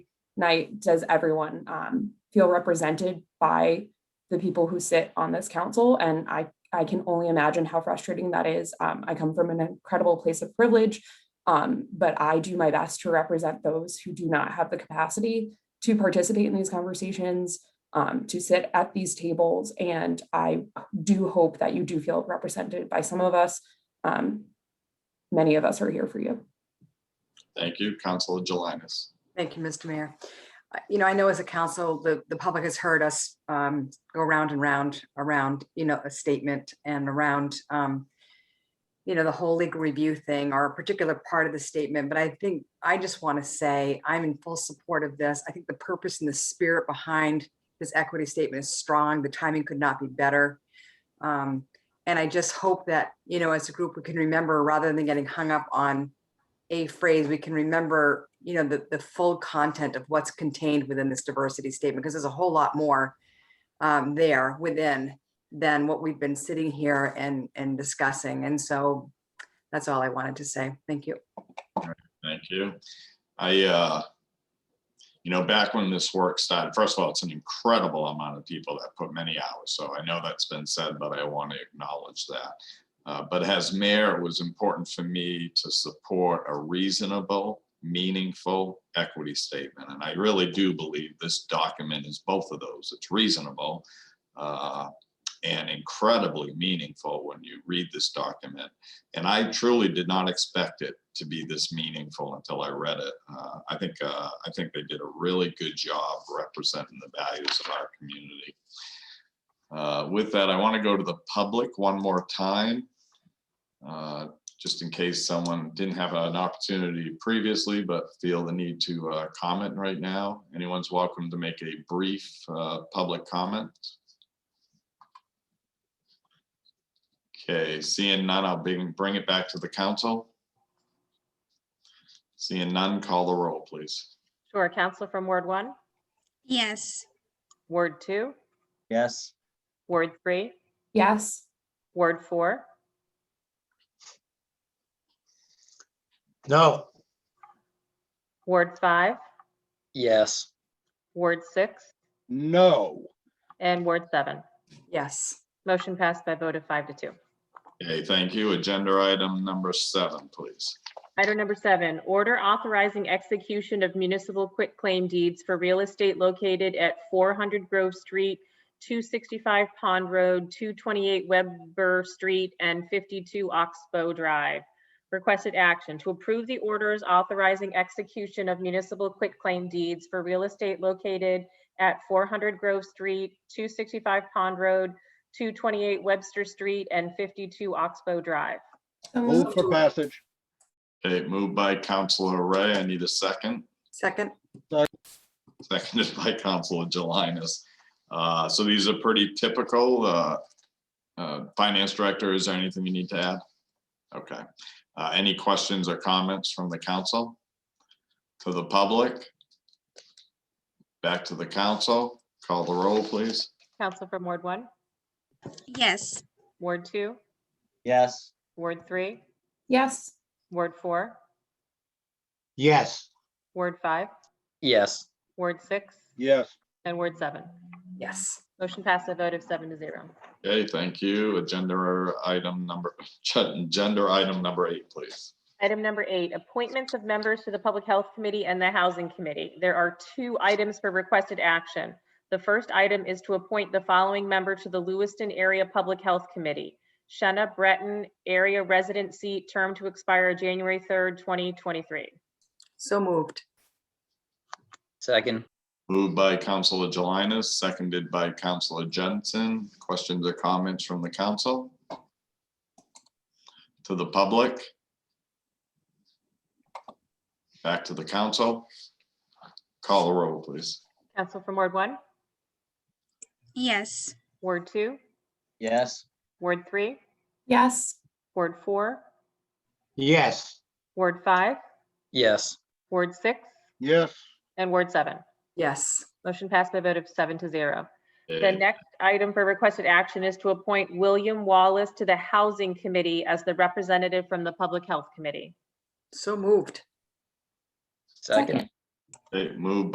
night does everyone um, feel represented by the people who sit on this council? And I, I can only imagine how frustrating that is. Um, I come from an incredible place of privilege, um, but I do my best to represent those who do not have the capacity to participate in these conversations, um, to sit at these tables. And I do hope that you do feel represented by some of us. Um, many of us are here for you. Thank you, Councilor Jelinas. Thank you, Mr. Mayor. Uh, You know, I know as a council, the, the public has heard us um, go round and round, around, you know, a statement and around, um, you know, the whole legal review thing or a particular part of the statement, but I think, I just want to say I'm in full support of this. I think the purpose and the spirit behind this equity statement is strong. The timing could not be better. Um, And I just hope that, you know, as a group, we can remember rather than getting hung up on a phrase, we can remember, you know, the, the full content of what's contained within this diversity statement, because there's a whole lot more um, there within than what we've been sitting here and, and discussing. And so that's all I wanted to say. Thank you. Thank you. I, uh, you know, back when this work started, first of all, it's an incredible amount of people that put many hours. So I know that's been said, but I want to acknowledge that. Uh, But as mayor, it was important for me to support a reasonable, meaningful equity statement. And I really do believe this document is both of those. It's reasonable uh, and incredibly meaningful when you read this document. And I truly did not expect it to be this meaningful until I read it. Uh, I think, uh, I think they did a really good job representing the values of our community. Uh, With that, I want to go to the public one more time. uh, Just in case someone didn't have an opportunity previously, but feel the need to uh, comment right now. Anyone's welcome to make a brief uh, public comment. Okay, seeing none, I'll bring, bring it back to the council. Seeing none, call the roll, please. Sure, Counselor from Ward one, Yes, Ward two, Yes, Ward three, Yes, Ward four, No, Ward five, yes. Ward six, No. and Ward seven. Yes. Motion passed by vote of five to two. Okay, thank you. Agenda item number seven, please. Item number seven, order authorizing execution of municipal quitclaim deeds for real estate located at 400 Grove Street, 265 Pond Road, 228 Weber Street, and 52 Oxbow Drive. Requested action to approve the orders authorizing execution of municipal quitclaim deeds for real estate located at 400 Grove Street, 265 Pond Road, 228 Webster Street, and 52 Oxbow Drive. So Move moved. for passage. Okay, moved by Counselor Ray. I need a second, Second, seconded by Counselor Jelinas. Uh, So these are pretty typical. uh, uh, Finance Director, is there anything you need to add? Okay. Uh, Any questions or comments from the council? To the public? Back to the council. Call the roll, please. Council from Ward one? yes, Ward two, Yes, Ward three, yes, Ward four, yes, Ward five, yes. Ward six, Yes, and Ward seven. yes. Motion passed a vote of seven to zero. Okay, thank you. Agenda item number, agenda item number eight, please. Item number eight, appointments of members to the Public Health Committee and the Housing Committee. There are two items for requested action. The first item is to appoint the following member to the Lewiston Area Public Health Committee. Shenna Breton, area resident seat, term to expire January third, twenty twenty-three. So moved. second. Moved by Counselor Jelinas, seconded by Counselor Jensen. Questions or comments from the council? To the public? Back to the council. Call the roll, please. Council from Ward one, yes, Ward two, Yes, Ward three, yes, Ward four, yes, Ward five, yes. Ward six, Yes. and Ward seven. Yes. Motion passed by a vote of seven to zero. The Okay, next item for requested action is to appoint William Wallace to the Housing Committee as the representative from the Public Health Committee. So moved. Second. okay, Moved